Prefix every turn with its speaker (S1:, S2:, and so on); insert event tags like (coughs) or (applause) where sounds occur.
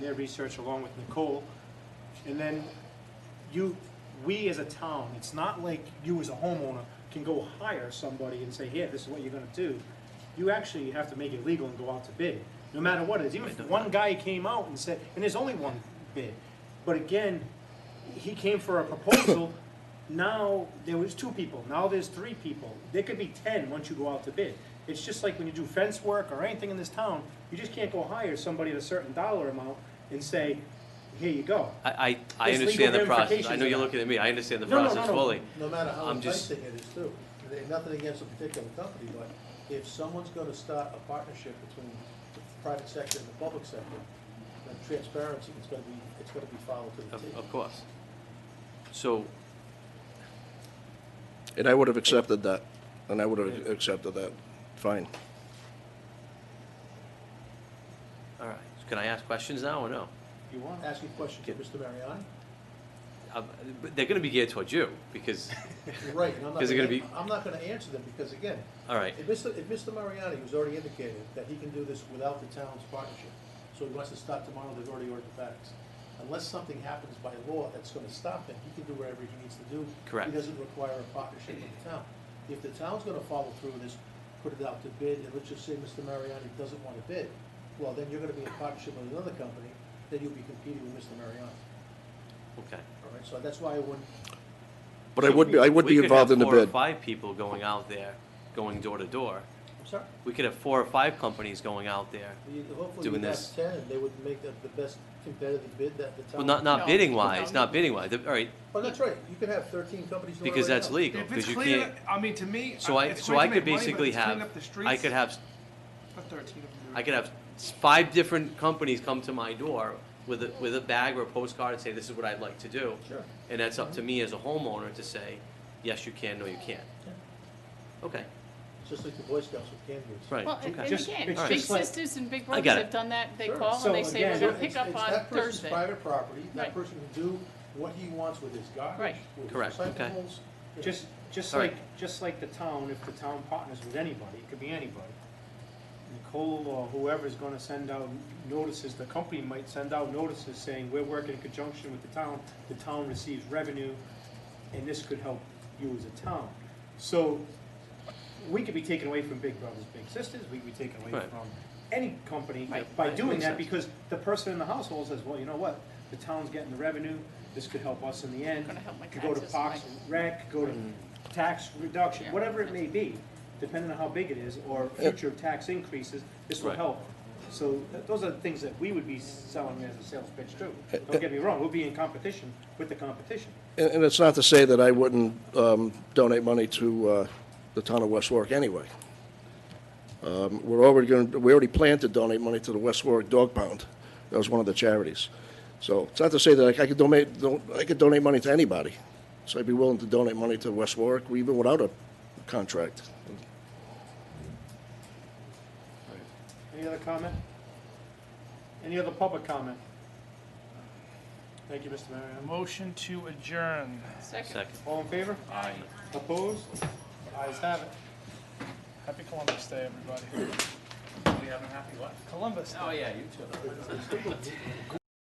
S1: their research along with Nicole. And then you, we as a town, it's not like you as a homeowner can go hire somebody and say, here, this is what you're gonna do. You actually have to make it legal and go out to bid, no matter what it is. Even if one guy came out and said, and there's only one bid. But again, he came for a proposal, (coughs) now there was two people, now there's three people. There could be ten once you go out to bid. It's just like when you do fence work or anything in this town, you just can't go hire somebody at a certain dollar amount and say, here you go.
S2: I, I, I
S1: There's
S2: understand the
S1: legal
S2: process. I
S1: ramifications
S2: know
S1: of
S2: you're
S1: that.
S2: looking at me. I understand the
S1: No, no, no,
S2: process
S1: no.
S2: fully.
S3: No matter how
S2: I'm just-
S3: enticing it is too, There ain't nothing against a particular company, but if someone's gonna start a partnership between the private sector and the public sector, then transparency is gonna be, it's gonna be followed to the
S2: Of,
S3: T.
S2: of course. So,
S4: And I would have accepted that, and I would have accepted that, fine.
S2: all right. Can I ask questions now or no?
S1: You want?
S3: Ask you a question,
S2: Okay.
S3: Mr. Mariani?
S2: Uh, but They're gonna be geared towards you because,
S5: (laughs)
S3: You're right, and I'm not,
S2: Is it gonna
S3: gonna-
S2: be-
S3: I'm not gonna answer them, because again,
S2: all right,
S3: if Mr., if Mr. Mariani has already indicated that he can do this without the town's partnership, so he wants to stop tomorrow, they've already ordered the facts. Unless something happens by law that's gonna stop him, he can do whatever he needs to do.
S2: Correct.
S3: He doesn't require a partnership with the town. If the town's gonna follow through with this, put it out to bid, and let's just say Mr. Mariani doesn't wanna bid, well, then you're gonna be in partnership with another company, then you'll be competing with Mr. Mariani,
S2: okay.
S3: all right? So that's why I wouldn't,
S4: But I would be, I would
S2: We
S4: be
S2: could
S4: involved
S2: have
S4: in the
S2: four or
S4: bid.
S2: Five people going out there, going door to door.
S3: I'm sorry?
S2: We could have four or five companies going out there.
S3: You- Hopefully
S2: Doing
S3: you'd
S2: this.
S3: have ten, they would make the, the best competitive bid that the town.
S2: Well, not,
S5: No.
S2: not bidding wise, not bidding wise. All right,
S3: Well, that's right, you could have thirteen companies doing it
S2: because
S3: right
S2: that's
S3: now.
S2: legal,
S5: If
S2: because
S5: it's
S2: you
S5: clear,
S2: can't.
S5: I mean, to me,
S2: So I,
S5: it's
S2: so
S5: great
S2: I
S5: to
S2: could
S5: make money, but
S2: basically
S5: if it's cleaning
S2: have,
S5: up the
S2: I
S5: streets,
S2: could have
S5: for 13 of them.
S2: I could have s- five different companies come to my door with a, with a bag or a postcard and say, this is what I'd like to do.
S3: Sure. Mm-hmm.
S2: And that's up to me as a homeowner to say, yes, you can, no, you can't.
S3: Yeah.
S2: Okay,
S3: It's just like the Boy Scouts with candles.
S2: right,
S5: Well,
S1: Okay.
S5: and- and
S1: Just-
S5: again,
S1: it's
S2: just
S5: big
S1: like-
S5: sisters and big
S2: I
S5: brothers
S2: got it.
S5: have done that, they
S3: Sure.
S5: call
S1: So
S5: and they say, we're
S1: again-
S5: gonna
S1: So
S5: pick up
S3: It's-
S5: on
S3: It's that person's
S5: Thursday.
S3: private property, that
S5: Right.
S3: person can do what he wants with his
S5: Right.
S3: garbage, with his
S2: Correct, okay.
S3: recyclables. you know.
S1: Just, just
S2: All right.
S1: like, just like the town, if the town partners with anybody, it could be anybody. Nicole or whoever's gonna send out notices, the company might send out notices saying, we're working in conjunction with the town, the town receives revenue, and this could help you as a town. So, we could be taken away from Big Brothers Big Sisters, we could be taken away
S2: Right.
S1: from any company
S2: Right.
S1: by
S2: Right.
S1: doing
S2: Makes
S1: that,
S2: sense.
S1: because the person in the household says, well, you know what? The town's getting the revenue, this could help us in the end.
S5: Gonna help my
S1: Could go to
S5: taxes,
S1: Fox
S5: right.
S1: and rec, go to tax reduction,
S5: Yeah.
S1: whatever it may be, depending on how big it is, or future tax increases, this will
S2: Right.
S1: help. So th- those are the things that we would be selling as a sales pitch too. Don't get me wrong, we'll be in competition with the competition.
S4: And, and it's not to say that I wouldn't, um, donate money to, uh, the town of West Warwick anyway. Um, we're already gonna, we already planned to donate money to the West Warwick Dog Pound. That was one of the charities. So it's not to say that I could donate, don't, I could donate money to anybody. So I'd be willing to donate money to West Warwick, even without a contract.
S1: Any other comment? Any other public comment? Thank you, Mr. Mariano.
S6: Motion to adjourn.
S5: Second.
S2: second.
S1: All in favor?
S6: Aye.
S1: Opposed? Ayes have it.
S6: Happy Columbus Day, everybody.
S5: We haven't happy what? Oh,
S6: Columbus Day.
S5: yeah, you too.